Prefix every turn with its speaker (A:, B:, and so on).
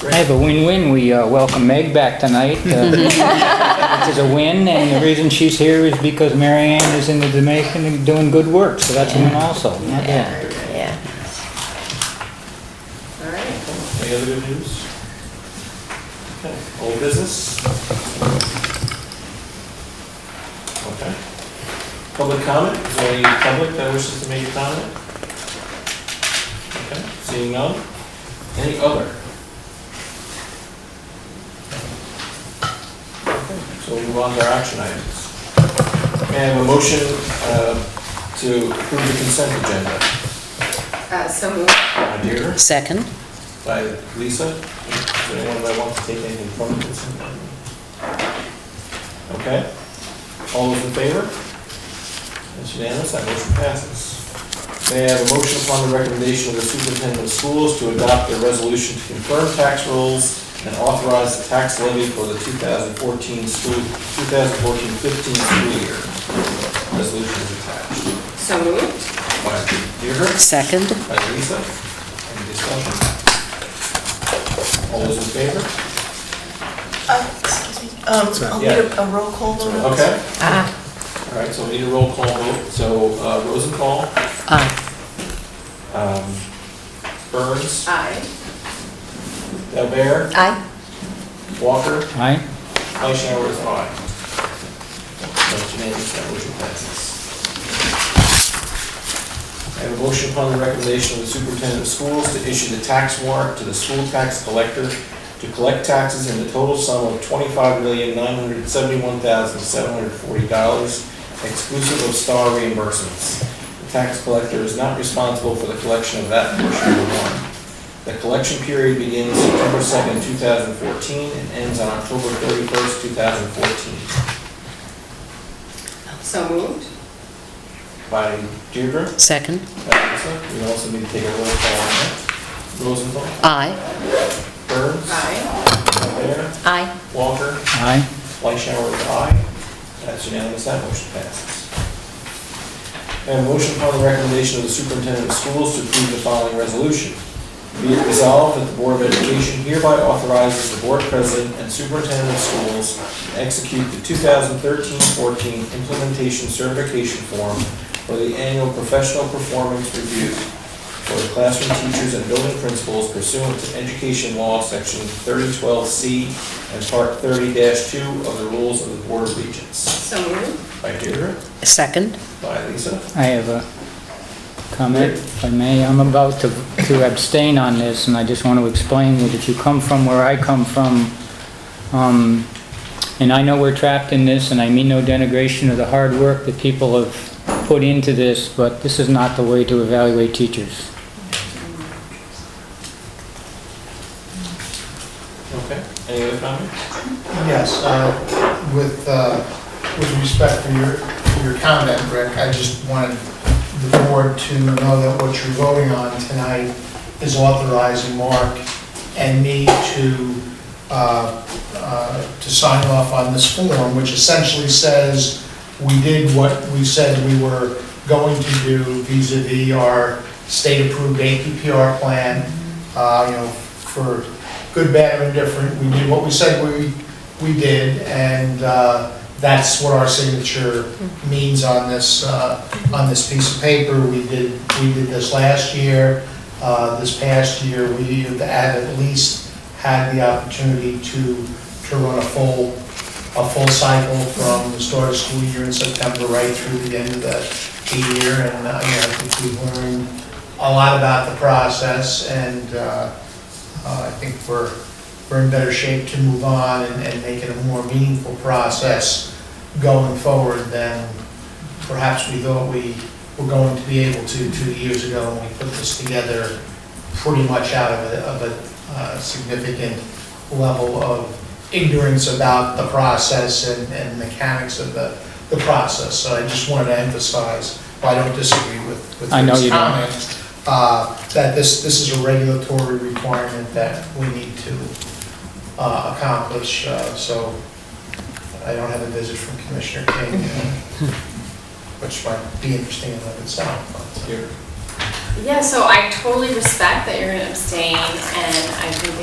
A: I have a win-win. We uh, welcome Meg back tonight, uh, which is a win, and the reason she's here is because Marianne is in the Dominican and doing good work, so that's a win also. Not bad.
B: Yeah.
C: All right.
D: Any other good news? Okay, old business? Okay. Public comment, is there any public that wishes to make a comment? Okay, seeing none, any other? Okay, So we'll move on to our action items. May I have a motion uh, to approve the consent agenda?
C: Uh, So moved.
D: By Deirdre?
B: Second?
D: by Lisa. Does anyone that wants to take anything from the consent agenda? Okay, all those in favor? That's unanimous, that motion passes. May I have a motion upon the recommendation of the superintendent of schools to adopt a resolution to confirm tax rules and authorize the tax levy for the 2014 school, 2014-15 school year. Resolution is attached.
C: So moved.
D: By Deirdre?
B: Second?
D: By Lisa, any discussion? All those in favor?
E: Uh, Excuse me, um, I'll need a a roll call vote. on this.
D: Okay. Ah. All right, so we need a roll call vote, so uh, Rosenthal,
B: Aye.
D: um, Burns,
C: Aye.
D: Delbear,
B: Aye.
D: Walker,
A: Aye?
D: Fleischauer is aye. That's unanimous, that motion passes. I have a motion upon the recommendation of the superintendent of schools to issue the tax warrant to the school tax collector to collect taxes in the total sum of twenty-five million, nine hundred seventy-one thousand, seven hundred forty dollars, exclusive of star reimbursements. The tax collector is not responsible for the collection of that portion of the warrant. The collection period begins September second, two thousand fourteen, and ends on October thirty-first, two thousand fourteen.
C: So moved.
D: By Deirdre,
B: Second?
D: by Lisa, we also need to take a roll call on that. Rosenthal,
B: Aye.
D: Burns,
C: Aye.
D: Bear,
B: Aye.
D: Walker,
A: Aye?
D: Fleischauer is aye. That's unanimous, that motion passes. And motion upon the recommendation of the superintendent of schools to approve the following resolution. Be it resolved that the Board of Education hereby authorizes the board president and superintendent of schools to execute the 2013-14 implementation certification form for the annual professional performance review for the classroom teachers and building principals pursuant to education law, section 3012C and Part 30-2 of the Rules of the Board of Regents.
C: So moved.
D: By Deirdre,
B: Second?
D: by Lisa.
A: I have a comment, if I may. I'm about to to abstain on this, and I just want to explain that if you come from where I come from, um, and I know we're trapped in this, and I mean no denigration of the hard work that people have put into this, but this is not the way to evaluate teachers.
D: Okay, any other comments?
F: Yes, uh, with, uh, with respect for your, for your comment, Rick, I just wanted the board to know that what you're voting on tonight is authorizing Mark and me to, uh, uh, to sign off on this form, which essentially says we did what we said we were going to do vis-à-vis our state-approved APPR plan, uh, you know, for good, bad, or indifferent, we did what we said we we did, and uh, that's what our signature means on this, uh, on this piece of paper. We did, we did this last year, Uh, this past year, we have had at least had the opportunity to, to run a full, a full cycle from the start of school year in September right through the end of the the year, and, uh, you know, I think we've learned a lot about the process, and uh, uh, I think we're, we're in better shape to move on and, and make it a more meaningful process going forward than perhaps we thought we were going to be able to two years ago when we put this together pretty much out of a, of a uh, significant level of ignorance about the process and, and mechanics of the, the process. So I just wanted to emphasize, while I don't disagree with, with
A: I know
F: Rick's
A: you don't.
F: comment, uh, that this, this is a regulatory requirement that we need to uh, accomplish. Uh, So I don't have a visit from Commissioner King, uh, which might be interesting in and of itself. but- uh,
D: Deirdre?
C: Yeah, so I totally respect that you're going to abstain, and I think it